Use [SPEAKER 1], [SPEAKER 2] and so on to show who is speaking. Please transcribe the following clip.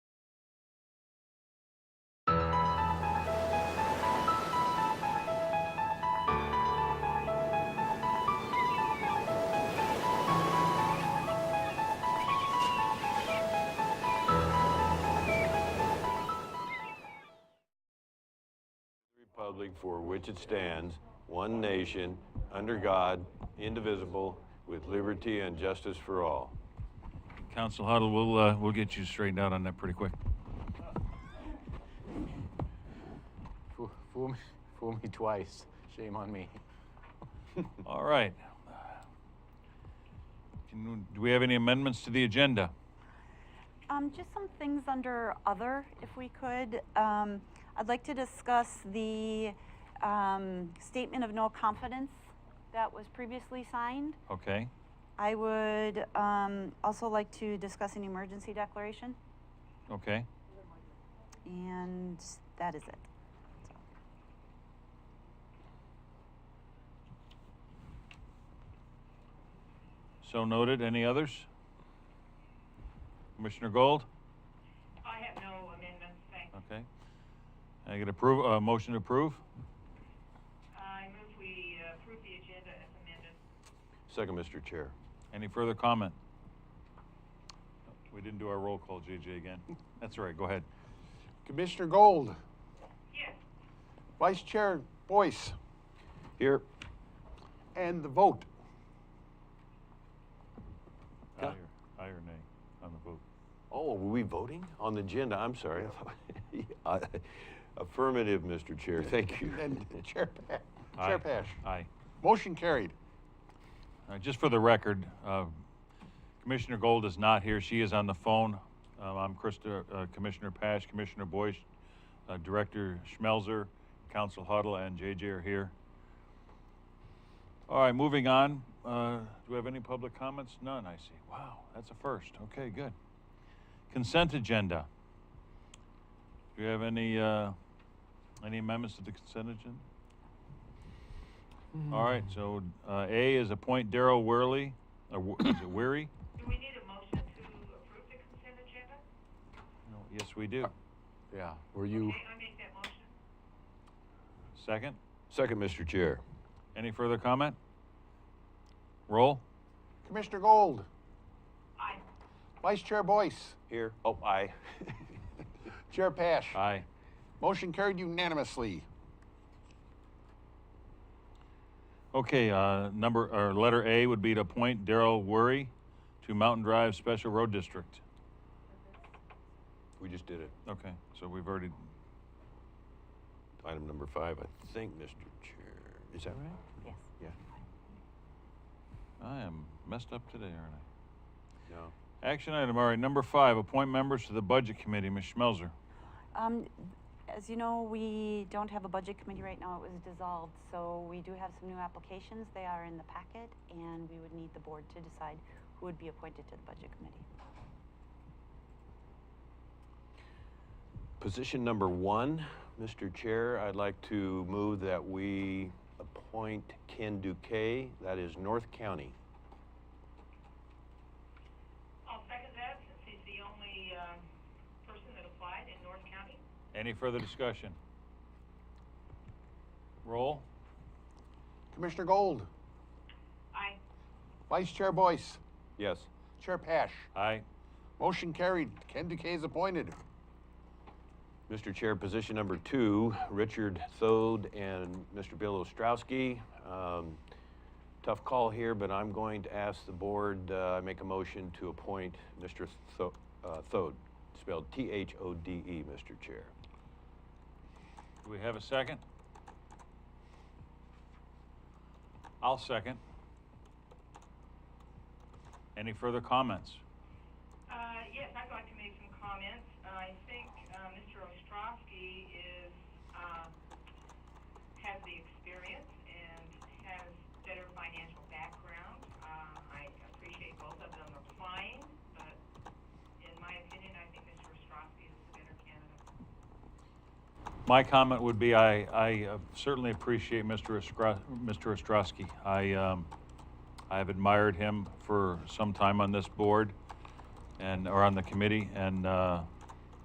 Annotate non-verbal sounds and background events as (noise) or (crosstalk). [SPEAKER 1] republic for which it stands, one nation, under God, indivisible, with liberty and justice for all.
[SPEAKER 2] Council Huddle, we'll, uh, we'll get you straightened out on that pretty quick.
[SPEAKER 3] Fool, fool me, fool me twice. Shame on me.
[SPEAKER 2] All right. Can, do we have any amendments to the agenda?
[SPEAKER 4] Um, just some things under other, if we could. Um, I'd like to discuss the, um, statement of no confidence that was previously signed.
[SPEAKER 2] Okay.
[SPEAKER 4] I would, um, also like to discuss an emergency declaration,
[SPEAKER 2] Okay.
[SPEAKER 4] and that is it. So,
[SPEAKER 2] So noted. Any others? Commissioner Gold?
[SPEAKER 5] I have no amendments, thanks.
[SPEAKER 2] Okay. I get approve, uh, motion to approve?
[SPEAKER 5] I move we uh, approve the agenda as amended.
[SPEAKER 1] Second, Mr. Chair.
[SPEAKER 2] Any further comment? We didn't do our roll call, JJ, again. That's all right. Go ahead.
[SPEAKER 3] Commissioner Gold,
[SPEAKER 5] Yes,
[SPEAKER 3] Vice Chair Boyce,
[SPEAKER 1] Here.
[SPEAKER 3] and the vote.
[SPEAKER 2] Aye
[SPEAKER 1] Yeah.
[SPEAKER 2] or, aye or nay on the vote?
[SPEAKER 1] Oh, were we voting on the agenda? I'm sorry. (laughs) I- Affirmative, Mr. Chair. Thank you.
[SPEAKER 3] (laughs) And Chair Pa-
[SPEAKER 2] Aye.
[SPEAKER 3] Chair Pash.
[SPEAKER 2] Aye.
[SPEAKER 3] Motion carried.
[SPEAKER 2] Uh, Just for the record, uh, Commissioner Gold is not here. She is on the phone. Um, I'm Krista, uh, Commissioner Pash, Commissioner Boyce, uh, Director Schmelzer, Council Huddle, and JJ are here. All right, moving on. Uh, Do we have any public comments? None, I see. Wow, that's a first. Okay, good. Consent agenda. Do we have any, uh, any amendments to the consent agenda? All right, so uh, A is appoint Daryl Weary, uh, is it Weary?
[SPEAKER 5] do we need a motion to approve the consent agenda?
[SPEAKER 2] No, Yes, we do.
[SPEAKER 3] Yeah, were you?
[SPEAKER 5] May I make that motion?
[SPEAKER 2] Second,
[SPEAKER 1] Second, Mr. Chair.
[SPEAKER 2] any further comment? Roll?
[SPEAKER 3] Commissioner Gold,
[SPEAKER 5] Aye.
[SPEAKER 3] Vice Chair Boyce,
[SPEAKER 1] Here. Oh, aye. (laughs)
[SPEAKER 3] Chair Pash.
[SPEAKER 2] Aye.
[SPEAKER 3] Motion carried unanimously.
[SPEAKER 2] Okay, uh, number, or letter A would be to appoint Daryl Weary to Mountain Drive Special Road District.
[SPEAKER 1] We just did it.
[SPEAKER 2] Okay, so we've already,
[SPEAKER 1] Item number five, I think, Mr. Chair. Is that right?
[SPEAKER 4] Yes.
[SPEAKER 1] Yeah.
[SPEAKER 2] I am messed up today, aren't I?
[SPEAKER 1] No.
[SPEAKER 2] Action item, all right, number five, appoint members to the Budget Committee, Ms. Schmelzer.
[SPEAKER 4] Um, as you know, we don't have a budget committee right now, it was dissolved, so we do have some new applications, they are in the packet, and we would need the board to decide who would be appointed to the budget committee.
[SPEAKER 1] Position number one, Mr. Chair, I'd like to move that we appoint Ken Duque, that is North County.
[SPEAKER 5] I'll second that, since he's the only um, person that applied in North County.
[SPEAKER 2] Any further discussion? Roll?
[SPEAKER 3] Commissioner Gold,
[SPEAKER 5] Aye.
[SPEAKER 3] Vice Chair Boyce,
[SPEAKER 1] Yes.
[SPEAKER 3] Chair Pash.
[SPEAKER 2] Aye.
[SPEAKER 3] Motion carried. Ken Duque is appointed.
[SPEAKER 1] Mr. Chair, position number two, Richard Thode and Mr. Bill Ostrowski. Um, Tough call here, but I'm going to ask the board, uh, make a motion to appoint Mr. Tho- uh, Thode, spelled T-H-O-D-E, Mr. E, Chair.
[SPEAKER 2] Do we have a second? I'll second. Any further comments?
[SPEAKER 5] Uh, Yes, I'd like to make some comments. I think uh, Mr. Ostrowski is, um, has the experience and has better financial background. Uh, I appreciate both of them applying, but in my opinion, I think Mr. Ostrowski is the better candidate.
[SPEAKER 2] My comment would be I, I uh, certainly appreciate Mr. Ostro- Mr. Ostrowski. I, um, I have admired him for some time on this board and, or on the committee, and, uh,